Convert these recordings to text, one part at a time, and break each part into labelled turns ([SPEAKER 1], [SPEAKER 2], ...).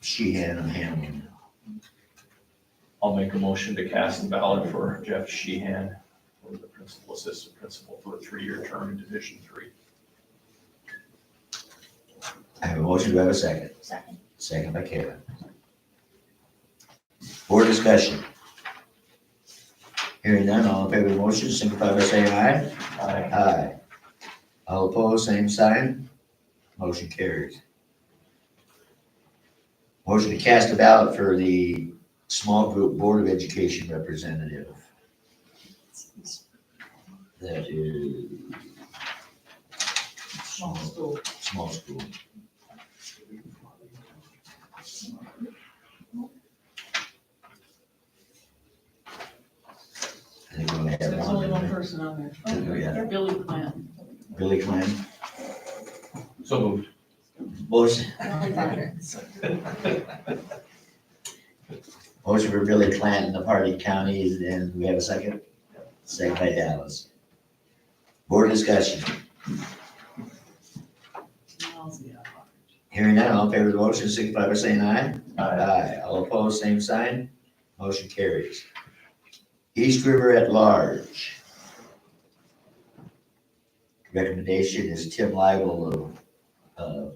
[SPEAKER 1] she had on him.
[SPEAKER 2] I'll make a motion to cast the ballot for Jeff Sheehan for the principal assistant principal for a three-year term in Division Three.
[SPEAKER 1] I have a motion, do I have a second?
[SPEAKER 3] Second.
[SPEAKER 1] Second by Kevin. Board discussion. Hearing none, all in favor of the motion, signify by saying aye.
[SPEAKER 2] Aye.
[SPEAKER 1] Aye. All opposed, same sign. Motion carries. Motion to cast a ballot for the small group Board of Education representative. That is. Small school. Small school. I think we only have
[SPEAKER 4] There's
[SPEAKER 1] one.
[SPEAKER 4] only one
[SPEAKER 1] right?
[SPEAKER 4] person on
[SPEAKER 1] I think we have
[SPEAKER 4] there, Billy Clam.
[SPEAKER 1] Billy Klein.
[SPEAKER 2] So moved.
[SPEAKER 1] Motion, motion for Billy Clanton of Hardy County, and we have a second? Second by Dallas. Board discussion, hearing none, all in favor of the motion, signify by saying aye.
[SPEAKER 2] Aye.
[SPEAKER 1] Aye, all opposed, same sign, motion carries. East River at large. Recommendation is Tim Lible of, uh,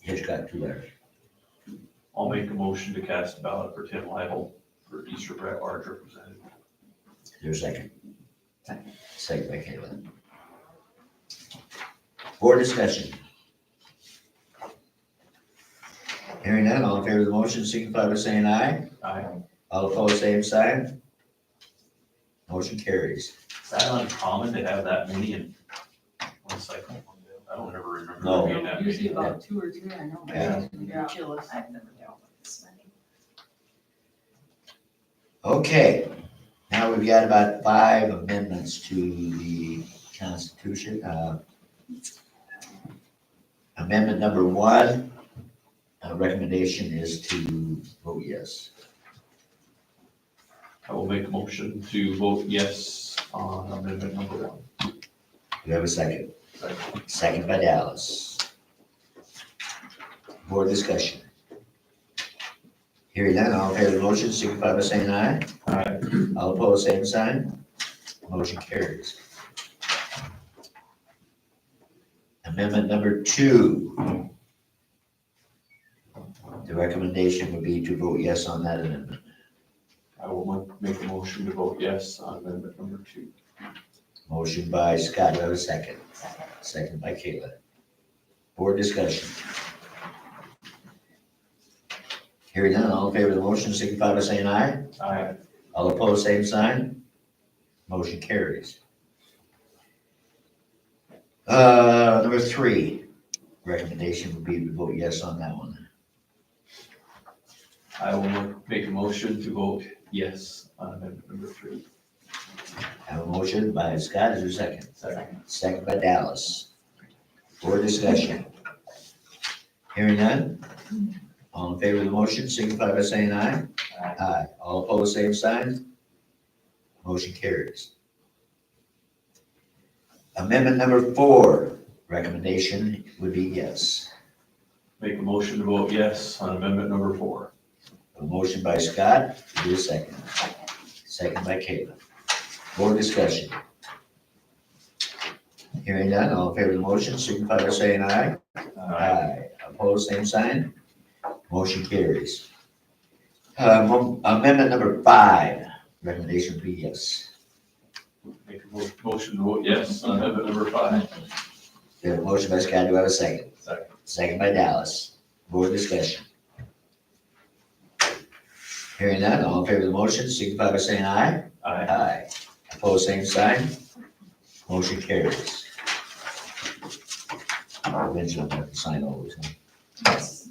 [SPEAKER 1] Hitchcock Tulare.
[SPEAKER 2] I'll make a motion to cast a ballot for Tim Lidle for East River at large representative.
[SPEAKER 1] Is there a second? Second by Caitlin. Board discussion. Hearing none, all in favor of the motion, signify by saying aye.
[SPEAKER 2] Aye.
[SPEAKER 1] All opposed, same sign. Motion carries.
[SPEAKER 2] Is that uncommon to have that many in one cycle? I don't ever remember. there
[SPEAKER 1] No.
[SPEAKER 2] being that many.
[SPEAKER 4] Usually about two or three, I know.
[SPEAKER 1] Oh, Yeah.
[SPEAKER 4] They're jealous.
[SPEAKER 3] I've never dealt with this many.
[SPEAKER 1] Okay, now we've got about five amendments to the Constitution. Uh, Amendment number one, uh, recommendation is to vote yes.
[SPEAKER 2] I will make a motion to vote yes on amendment number one.
[SPEAKER 1] Do you have a second?
[SPEAKER 2] Second.
[SPEAKER 1] Second by Dallas. Board discussion. Hearing none, all in favor of the motion, signify by saying aye.
[SPEAKER 2] Aye.
[SPEAKER 1] All opposed, same sign. Motion carries. Amendment number two. The recommendation would be to vote yes on that amendment.
[SPEAKER 2] I will mo- make a motion to vote yes on amendment number two.
[SPEAKER 1] Motion by Scott, do I have a second?
[SPEAKER 3] Second.
[SPEAKER 1] Second by Kayla. Board discussion. Hearing none, all in favor of the motion, signify by saying aye.
[SPEAKER 2] Aye.
[SPEAKER 1] All opposed, same sign. Motion carries. Uh, number three, recommendation would be to vote yes on that one.
[SPEAKER 2] I will mo- make a motion to vote yes on amendment number three.
[SPEAKER 1] Have a motion by Scott, is there a second?
[SPEAKER 2] Second.
[SPEAKER 1] Second by Dallas. Board discussion. Hearing none? All in favor of the motion, signify by saying aye.
[SPEAKER 2] Aye.
[SPEAKER 1] Aye. All opposed, same sign. Motion carries. Amendment number four, recommendation would be yes.
[SPEAKER 2] Make a motion to vote yes on amendment number four.
[SPEAKER 1] A motion by Scott, do a second. Second by Kayla. Board discussion. Hearing none, all in favor of the motion, signify by saying aye. Aye. Opposed, same sign. Motion carries. Uh, mo- Amendment number five, recommendation would be yes.
[SPEAKER 2] Make a mo- motion to vote yes on amendment number five.
[SPEAKER 1] We have a motion by Scott, do I have a second?
[SPEAKER 2] Second.
[SPEAKER 1] Second by Dallas. Board discussion. Hearing none, all in favor of the motion, signify by saying aye.
[SPEAKER 2] Aye.
[SPEAKER 1] Aye. Opposed, same sign. Motion carries. Original, I have to sign all these.
[SPEAKER 3] Yes.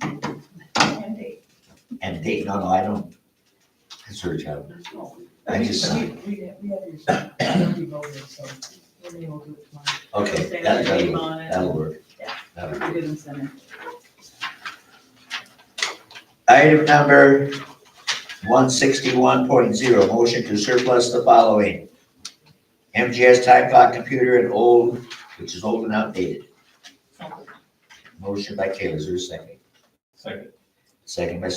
[SPEAKER 3] And eight.
[SPEAKER 1] And date, no, no, I don't. It's her job.
[SPEAKER 4] There's no-
[SPEAKER 1] I just
[SPEAKER 4] We,
[SPEAKER 1] signed.
[SPEAKER 4] we, we have your, we already voted, so we're gonna go do it tomorrow.
[SPEAKER 1] Okay,
[SPEAKER 4] Say
[SPEAKER 1] that-
[SPEAKER 4] their
[SPEAKER 1] that'll,
[SPEAKER 4] name
[SPEAKER 1] work.
[SPEAKER 4] on it.
[SPEAKER 1] that'll work.
[SPEAKER 4] Yeah.
[SPEAKER 1] That'll work.
[SPEAKER 4] We didn't send it.
[SPEAKER 1] Item number one sixty-one point zero, motion to surplus the following. MGS time clock computer and old, which is old and outdated. Motion by Kayla, is there a second?
[SPEAKER 2] Second.
[SPEAKER 1] Second by